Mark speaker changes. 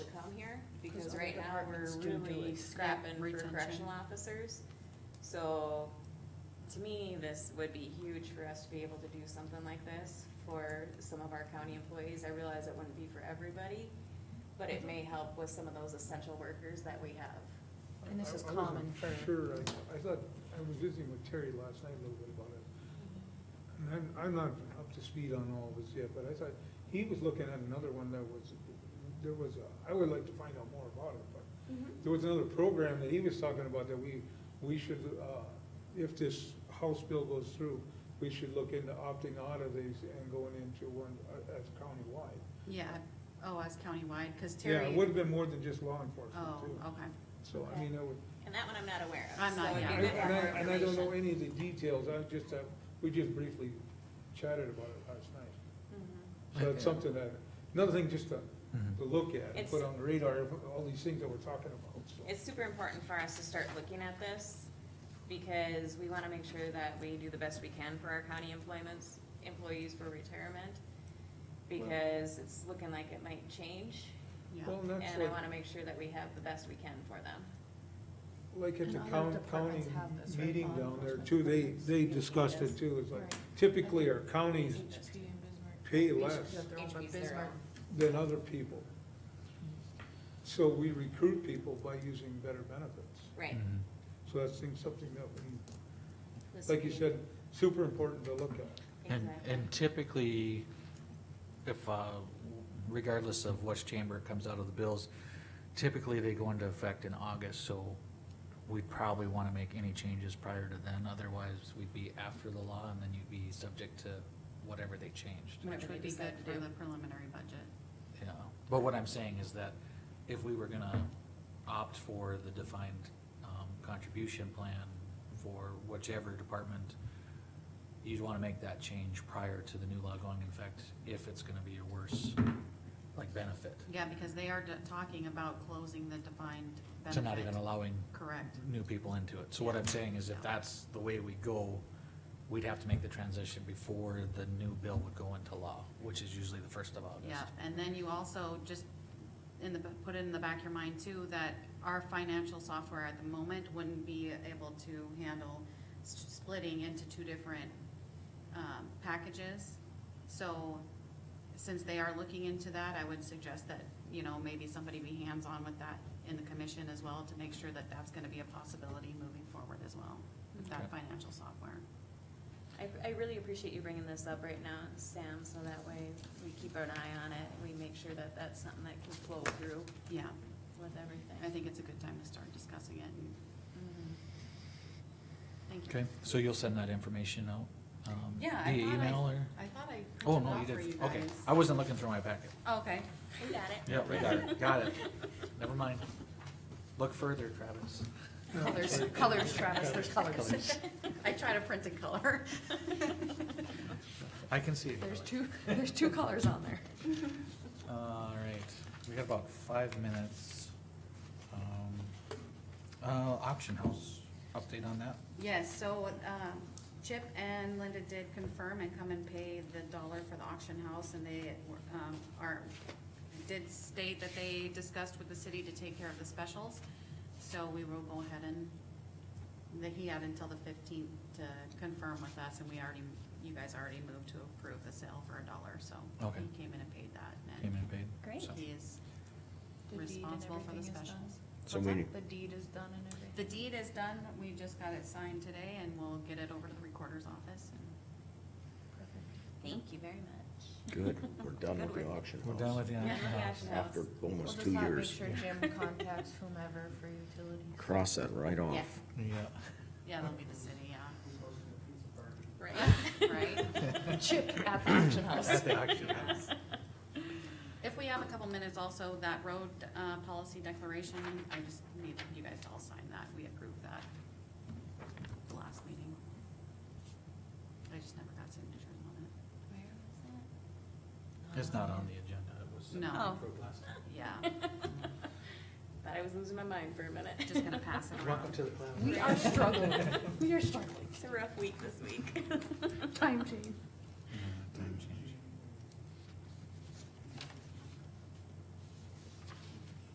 Speaker 1: right now, we're
Speaker 2: departments to do
Speaker 1: really
Speaker 2: it.
Speaker 1: scrapping for
Speaker 2: Retention.
Speaker 1: correctional officers. So, to me, this would be huge for us to be able to do something like this for some of our county employees. I realize it wouldn't be for everybody, but
Speaker 2: Mm-hmm.
Speaker 1: it may help with some of those essential workers that we have.
Speaker 2: And this
Speaker 3: I-
Speaker 2: is
Speaker 3: I wasn't
Speaker 2: common for-
Speaker 3: Sure, I, I thought, I was visiting with Terry last night a little bit about it. And I'm, I'm not up to speed on all of this yet, but I thought, he was looking at another one that was, there was, a- I would like to find out more about it, but
Speaker 2: Mm-hmm.
Speaker 3: there was another program that he was talking about that we, we should, uh, if this House bill goes through, we should look into opting out of these and going into one uh, as countywide.
Speaker 2: Yeah, oh, as countywide, cause
Speaker 3: Yeah,
Speaker 2: Terry.
Speaker 3: it would have been more than just law
Speaker 2: Oh,
Speaker 3: enforcement too.
Speaker 2: okay,
Speaker 3: So, I mean, that would,
Speaker 1: And that one I'm not aware of.
Speaker 2: I'm not,
Speaker 1: so it'd be
Speaker 2: yeah.
Speaker 3: And
Speaker 1: good to have
Speaker 3: I,
Speaker 1: more
Speaker 3: and I don't know
Speaker 1: information.
Speaker 3: any of the details, I just, uh, we just briefly chatted about it last night.
Speaker 1: Mhm.
Speaker 3: So it's something that, another thing just to, to look at, and
Speaker 1: It's-
Speaker 3: put on the radar, of all these things that we're talking about, so.
Speaker 1: It's super important for us to start looking at this because we want to make sure that we do the best we can for our county employments, employees for retirement. Because it's looking like it might change
Speaker 2: yeah.
Speaker 3: Well, and that's
Speaker 1: and I want
Speaker 3: like,
Speaker 1: to make sure that we have the best we can for them.
Speaker 3: like at
Speaker 4: And
Speaker 3: the
Speaker 4: other
Speaker 3: county, county
Speaker 4: departments have this, right?
Speaker 3: meeting
Speaker 4: Law
Speaker 3: down there
Speaker 4: enforcement
Speaker 3: too, they,
Speaker 4: departments.
Speaker 3: they
Speaker 4: Yeah.
Speaker 3: discussed it
Speaker 4: Yes.
Speaker 3: too, it's like,
Speaker 4: Right.
Speaker 3: typically our counties
Speaker 4: HP and Bismarck.
Speaker 3: pay
Speaker 4: Each
Speaker 3: less
Speaker 4: got their own, but
Speaker 1: HP 's their
Speaker 4: Bismarck-
Speaker 1: own.
Speaker 3: than other people. So we recruit people by using better benefits,
Speaker 1: Right.
Speaker 5: Mm.
Speaker 3: so that's thing- something that we,
Speaker 1: This
Speaker 3: like
Speaker 1: would
Speaker 3: you
Speaker 1: be-
Speaker 3: said, super important to look at.
Speaker 5: And,
Speaker 1: Exactly.
Speaker 5: and typically, if, uh, regardless of which chamber it comes out of the bills, typically they go into effect in August, so we'd probably wanna make any changes prior to then, otherwise we'd be after the law and then you'd be subject to whatever they changed,
Speaker 1: Whatever
Speaker 2: Which
Speaker 1: they
Speaker 2: would be good
Speaker 1: decide to
Speaker 2: for
Speaker 1: do.
Speaker 2: the preliminary budget.
Speaker 5: you know? But what I'm saying is that if we were gonna opt for the defined, um, contribution plan for whichever department, you'd wanna make that change prior to the new law going in effect, if it's gonna be a worse, like, benefit.
Speaker 2: Yeah, because they are de- talking about closing the defined benefit.
Speaker 5: To not even allowing
Speaker 2: Correct,
Speaker 5: new people into it. So what I'm saying is if that's the way we go, we'd have to make the transition before the new bill would go into law, which is usually the first of August.
Speaker 2: yeah, and then you also just, in the, put it in the back of your mind too, that our financial software at the moment wouldn't be able to handle s- splitting into two different, um, packages. So, since they are looking into that, I would suggest that, you know, maybe somebody be hands-on with that in the commission as well to make sure that that's gonna be a possibility moving forward as well, with that
Speaker 5: Okay.
Speaker 2: financial software.
Speaker 1: I, I really appreciate you bringing this up right now, Sam, so that way we keep an eye on it. We make sure that that's something that can flow through
Speaker 2: Yeah,
Speaker 1: with everything.
Speaker 2: I think it's a good time to start discussing it and,
Speaker 1: Mhm.
Speaker 2: thank you.
Speaker 5: Okay, so you'll send that information out? um,
Speaker 2: Yeah, I
Speaker 5: Via
Speaker 2: thought I-
Speaker 5: email or?
Speaker 2: I thought I printed
Speaker 5: Oh, no, you
Speaker 2: off for you
Speaker 5: did, okay.
Speaker 2: guys.
Speaker 5: I wasn't looking through my packet.
Speaker 2: Oh, Okay.
Speaker 1: Mm-hmm. We got it.
Speaker 5: Yeah, we got it, got it. Never mind. Look further, Travis.
Speaker 2: Colors, colors Travis, there's colors. I try to print in color.
Speaker 5: I can see it.
Speaker 2: There's
Speaker 5: Kelly.
Speaker 2: two, there's two colors on there.
Speaker 5: All right, we got about five minutes. Um, Uh, auction house, update on that?
Speaker 2: Yes, so, um, Chip and Linda did confirm and come and pay the dollar for the auction house, and they were, um, are, did state that they discussed with the city to take care of the specials, so we will go ahead and, that he had until the fifteenth to confirm with us, and we already, you guys already moved to approve the sale for a dollar, so.
Speaker 5: Okay.
Speaker 2: He came in and paid that,
Speaker 5: Came
Speaker 2: and
Speaker 5: in paid?
Speaker 1: Great.
Speaker 5: so.
Speaker 2: he is
Speaker 4: The deed and
Speaker 2: responsible for the
Speaker 4: everything is done?
Speaker 2: specials.
Speaker 6: So
Speaker 2: What's that?
Speaker 6: many,
Speaker 4: The deed is done and everything.
Speaker 2: The deed is done, we just got it signed today and we'll get it over to the recorder's office.
Speaker 1: Thank you very much.
Speaker 6: good, we're done with
Speaker 2: Good
Speaker 6: the
Speaker 2: work.
Speaker 6: auction house.
Speaker 5: We're done with the
Speaker 1: Yeah, with
Speaker 5: auction
Speaker 1: the
Speaker 5: house.
Speaker 1: auction house.
Speaker 6: After
Speaker 4: We'll
Speaker 6: almost
Speaker 4: just
Speaker 6: two
Speaker 4: not make
Speaker 6: years,
Speaker 4: sure Jim contacts whomever for utilities.
Speaker 6: cross that right
Speaker 2: Yeah.
Speaker 6: off.
Speaker 5: Yeah.
Speaker 2: Yeah, that'll be the city, yeah,
Speaker 1: Right.
Speaker 2: right?
Speaker 4: Chip at the auction
Speaker 5: At the auction house.
Speaker 2: If we have a couple minutes also, that road, uh, policy declaration, I just need you guys to all sign that, we approved that at the last meeting. I just never got signatures on it,
Speaker 1: Where was that?
Speaker 5: It's not on the agenda, it was. uh,
Speaker 2: No.
Speaker 5: approved last time.
Speaker 2: yeah,
Speaker 1: Thought I was losing my mind for a minute.
Speaker 2: just gonna pass it
Speaker 5: Welcome
Speaker 2: around.
Speaker 5: to the club.
Speaker 4: We are struggling, we are struggling.
Speaker 1: It's a rough week this week.
Speaker 4: Time change.
Speaker 5: 嗯